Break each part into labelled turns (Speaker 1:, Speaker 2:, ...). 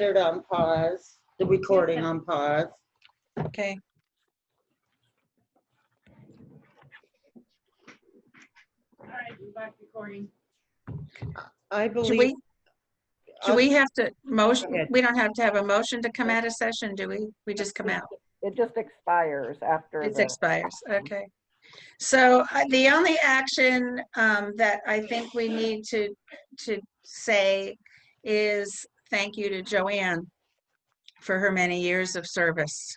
Speaker 1: Third on pause, the recording on pause.
Speaker 2: Okay.
Speaker 3: All right, we're back recording.
Speaker 1: I
Speaker 2: Do we,
Speaker 1: believe,
Speaker 2: do we have to
Speaker 1: Go
Speaker 2: motion,
Speaker 1: ahead.
Speaker 2: we don't have to have a motion to come out of session, do we? We just come out.
Speaker 4: It just expires after
Speaker 2: It
Speaker 4: the,
Speaker 2: expires, okay. So uh, the only action um, that I think we need to, to say is thank you to Joanne for her many years of service.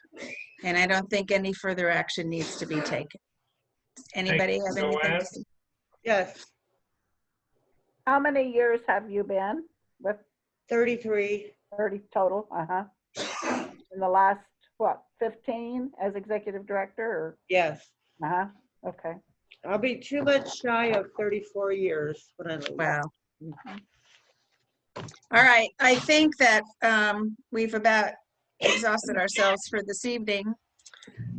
Speaker 2: And I don't think any further action needs to be taken. Anybody have anything? to
Speaker 5: Joanne.
Speaker 2: say?
Speaker 1: yes,
Speaker 4: how many years have you been with
Speaker 1: 33,
Speaker 4: 30 total? Uh-huh. In the last, what, 15 as executive director
Speaker 1: yes.
Speaker 4: or, uh-huh, okay.
Speaker 1: I'll be too much shy of 34 years when I leave.
Speaker 2: Wow. All right, I think that um, we've about exhausted ourselves for this evening.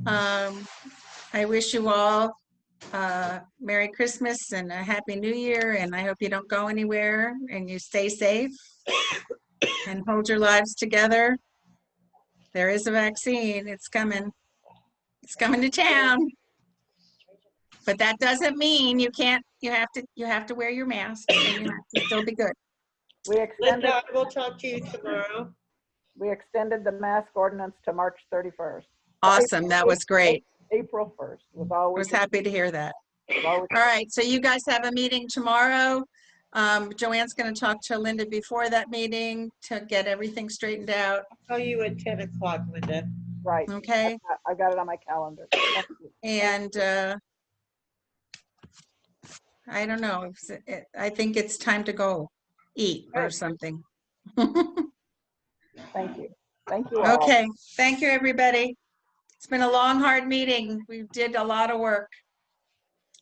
Speaker 2: Um, I wish you all uh, Merry Christmas and a Happy New Year, and I hope you don't go anywhere and you stay safe and hold your lives together. There is a vaccine, it's coming. It's coming to town. But that doesn't mean you can't, you have to, you have to wear your mask and you have to still be good. uh,
Speaker 4: We extended,
Speaker 1: Linda, I will talk to you tomorrow.
Speaker 4: we extended the mask ordinance to March 31st.
Speaker 2: Awesome, that was great.
Speaker 4: April 1st was
Speaker 2: I
Speaker 4: always.
Speaker 2: was happy to hear that.
Speaker 4: was always-
Speaker 2: All right, so you guys have a meeting tomorrow. Um, Joanne's gonna talk to Linda before that meeting to get everything straightened out,
Speaker 1: Call you at 10 o'clock, Linda.
Speaker 4: Right.
Speaker 2: okay?
Speaker 4: I- I got it on my calendar. Thank you.
Speaker 2: And, uh, I don't know, it's- it- I think it's time to go eat or something.
Speaker 4: Thank you. Thank you all.
Speaker 2: Okay, thank you, everybody. It's been a long, hard meeting. We did a lot of work.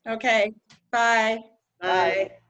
Speaker 2: Okay, bye.
Speaker 1: Bye.